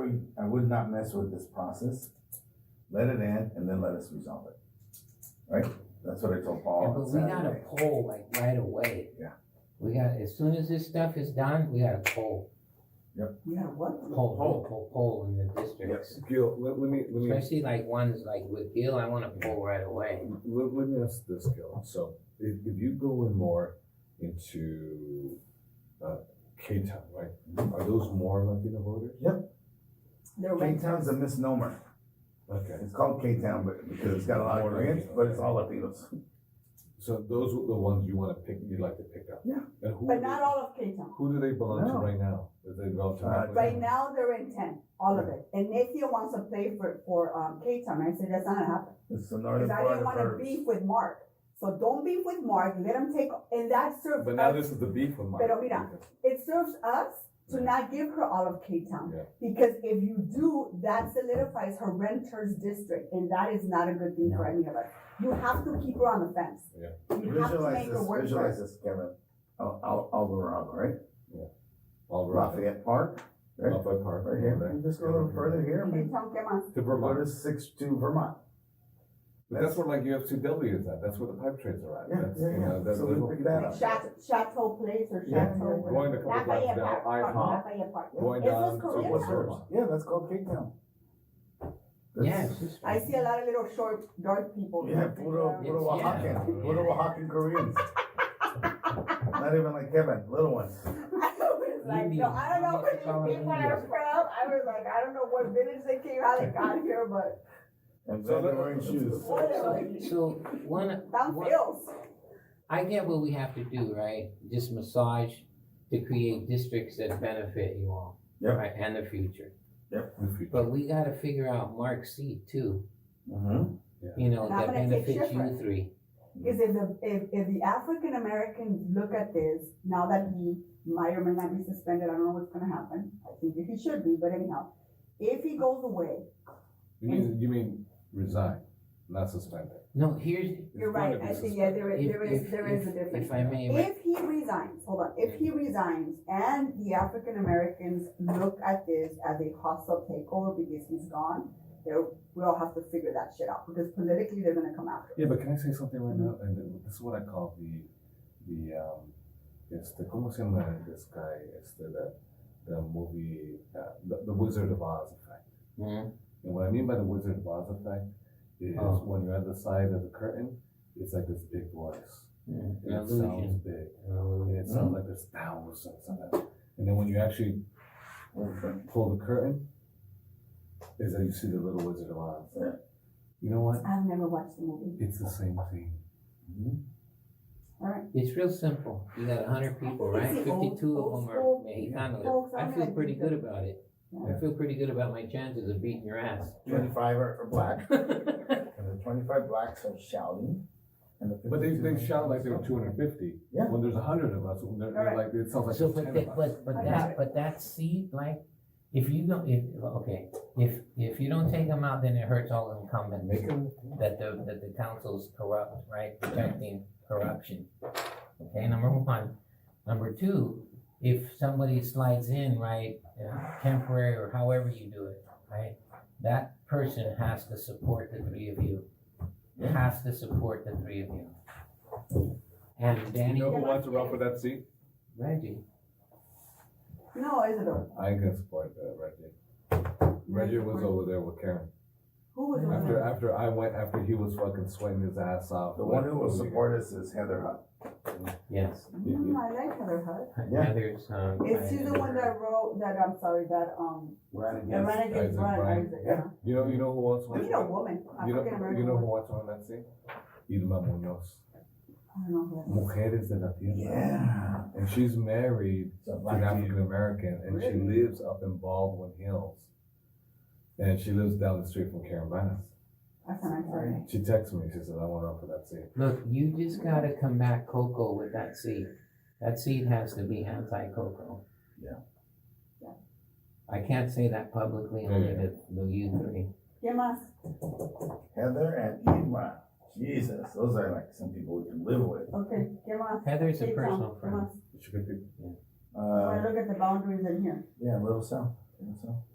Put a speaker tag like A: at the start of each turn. A: would, I would not mess with this process. Let it in and then let us resolve it. Right? That's what I told Paul
B: Yeah,
A: on
B: but we got a
A: Saturday.
B: poll like right away.
A: Yeah.
B: We got, as soon as this stuff is done, we got a poll,
C: Yeah, what?
B: poll, poll, poll, poll in the districts.
D: Gil, let, let me, let me,
B: Especially like ones like with Gil, I want a poll right away.
D: let, let me ask this, Gil. So if, if you go in more into, uh, Cape Town, right? Are those more Latino voters?
C: They're
A: K-Town's a misnomer.
D: Okay,
A: It's called K-Town, but because it's got a lot of Koreans, but it's all Latinos.
D: so those are the ones you wanna pick, you'd like to pick up?
A: Yeah.
D: And who,
C: But not all of Cape Town.
D: who do they belong to
A: No.
D: right now? Do they belong to?
A: Uh,
C: Right now, they're in ten, all of it. And Nathan wants to play for, for, um, Cape Town. I said, that's not gonna happen.
A: It's the northern
C: Cause I
A: part
C: didn't
A: of
C: wanna
A: her.
C: beef with Mark. So don't beef with Mark. Let him take, and that serves
D: But now
C: us,
D: this is the beef with Mike.
C: Pero mira. it serves us to not give her all of Cape Town.
D: Yeah.
C: Because if you do, that solidifies her renters district and that is not a good thing for any of us. You have to keep her on the fence.
D: Yeah.
C: You have to
A: Visualize
C: make her
A: this,
C: work for
A: visualize
C: it.
A: this, Kevin. Al, Al, Alvarado, right?
D: All right.
A: Lafayette Park, right?
D: Up at Park.
A: Right here. You
D: right.
A: Just go a little further here. and
C: Cape Town, come on.
D: To
A: Go to
D: Vermont.
A: six to Vermont.
D: But that's where like UFCW is at. That's where the pipe trades are at.
A: Yeah,
D: That's,
A: yeah,
D: you
A: yeah.
D: know, that's
A: So we
D: little-
A: picked that up.
C: Chateau, Chateau Place or
A: Yeah,
C: Chateau.
A: yeah,
D: Going to couple blocks
C: Lafayette
D: down,
C: Park, pardon,
D: IHOP,
C: Lafayette Park.
D: going
C: Is this
D: down to
C: Korean?
D: what's
A: Sure.
D: Vermont.
A: Yeah, that's called K-Town.
B: Yeah, it's just-
C: I see a lot of little short, dark people.
A: Yeah, puro,
B: Yeah.
A: puro Oaxacan, puro Oaxacan Koreans. Not even like Kevin, little ones.
C: I was like, no, I don't know where these people are from. I was like, I don't know what village they came, how they got here, but
A: And
D: So
A: then they're
D: that-
A: wearing shoes.
C: whatever.
B: So, so one,
C: Down
B: one,
C: feels.
B: I get what we have to do, right? Just massage to create districts that benefit you all.
A: Yep.
B: Right, and the future.
D: But
B: But we gotta figure out Mark's seat too,
A: Mm-hmm.
B: you know,
C: And I'm
B: that
C: gonna take
B: benefits you
C: Schifrin.
B: three.
C: Is if the, if, if the African Americans look at this, now that he might or may not be suspended, I don't know what's gonna happen. I think that he should be, but anyhow, if he goes away,
D: you mean, you mean resign, not suspend it.
B: No, here's,
D: It's
C: you're
D: going
C: right,
D: to be
C: I think, yeah, there is,
B: if,
C: there is,
B: if-
C: there is a
B: if-
C: difference.
B: If I may, right?
C: If he resigns, hold on, if he resigns and the African Americans look at this as a hostile takeover because he's gone, there, we'll have to figure that shit out because politically they're gonna come after.
D: Yeah, but can I say something right now? And then this is what I call the, the, um, este, ¿cómo se llama this guy? Este, the, the movie, uh, the, the Wizard of Oz effect.
B: Mhm.
D: And what I mean by the Wizard of Oz effect is
B: Oh.
D: when you're at the side of the curtain, it's like this big voice.
B: An
D: And it sounds
B: illusion.
D: big.
B: An illusion.
D: And it sounds like there's thousands of them. And then when you actually
A: Mm-hmm.
D: pull the curtain, is that you see the little Wizard of Oz.
A: Yeah.
D: You know what?
C: I've never watched the movie.
D: It's the same thing.
B: It's real simple. You got hundred people,
C: I
B: right?
C: think it's the old-
B: Fifty-two of
C: old
B: them are
C: school-
B: Mexicanos.
C: Folks,
B: I
C: I'm
B: feel
C: gonna
B: pretty
C: do
B: good
C: that.
B: about it.
C: Yeah.
B: I feel pretty good about my chances of beating your ass. Oh,
A: Twenty-five are are black,
B: But
A: and the twenty-five blacks are shouting. and the
D: But they, they
A: 52
D: shout like they were 250.
A: Yeah.
D: When there's 100 of us, when they're, they're like, it sounds like
B: So,
D: there's
B: but
D: 10
B: that,
D: of us.
B: but, but that, but that seat, like, if you don't, if, okay, if, if you don't take them out, then it hurts all incumbents.
D: Make them-
B: that the, that the council's corrupt, right, protecting corruption. Okay, number one. Number two, if somebody slides in, right, uh, temporary or however you do it, right, that person has to support the three of you. Has to support the three of you. And
D: You
B: Danny,
D: know who wants to run for that seat?
B: Reggie,
C: No, Isidore,
D: I ain't gonna support that, Reggie. Reggie was over there with Karen.
C: who was on
D: After
C: that?
D: after I went, after he was fucking sweating his ass off.
A: The one
D: like,
A: who will
D: holy-
A: support us is Heather Hutt.
B: yes,
C: Mm, I like Heather Hutt.
A: Yeah.
B: Heather's, um.
C: Is she the one that wrote, that, I'm sorry, that, um,
A: Ran
C: that
A: against,
C: ran against
D: Isaac
C: Brian
D: Bryan.
C: Isaac,
A: Yeah.
C: yeah?
D: You know, you know who else
C: We
D: wants
C: need a woman,
D: You know,
C: African
D: you
C: American
D: know who
C: woman.
D: wants on that scene? Irma Munoz.
C: I don't know who that
D: Mujeres
C: is.
D: de la Tierra.
A: yeah.
D: And she's married
A: It's a
D: to an
A: black
D: African
A: dude.
D: American and she
C: Really?
D: lives up in Baldwin Hills. And she lives down the street from Karen Banas.
C: That's an African.
D: She texted me. She says, I want to run for that seat.
B: Look, you just gotta combat Coco with that seed. That seed has to be anti-Coco.
A: Yeah.
C: Yeah.
B: I can't say that publicly,
D: Yeah,
B: only
D: yeah.
B: the, the you three.
C: ¿Qué más?
A: Heather and Irma. Jesus, those are like some people we can live with.
C: Okay, ¿qué más?
B: Heather's a
C: Cape Town,
B: personal
C: ¿qué
B: friend.
C: más?
D: She could be
A: Uh,
C: I look at the boundaries in here.
A: yeah, Little South, Little South.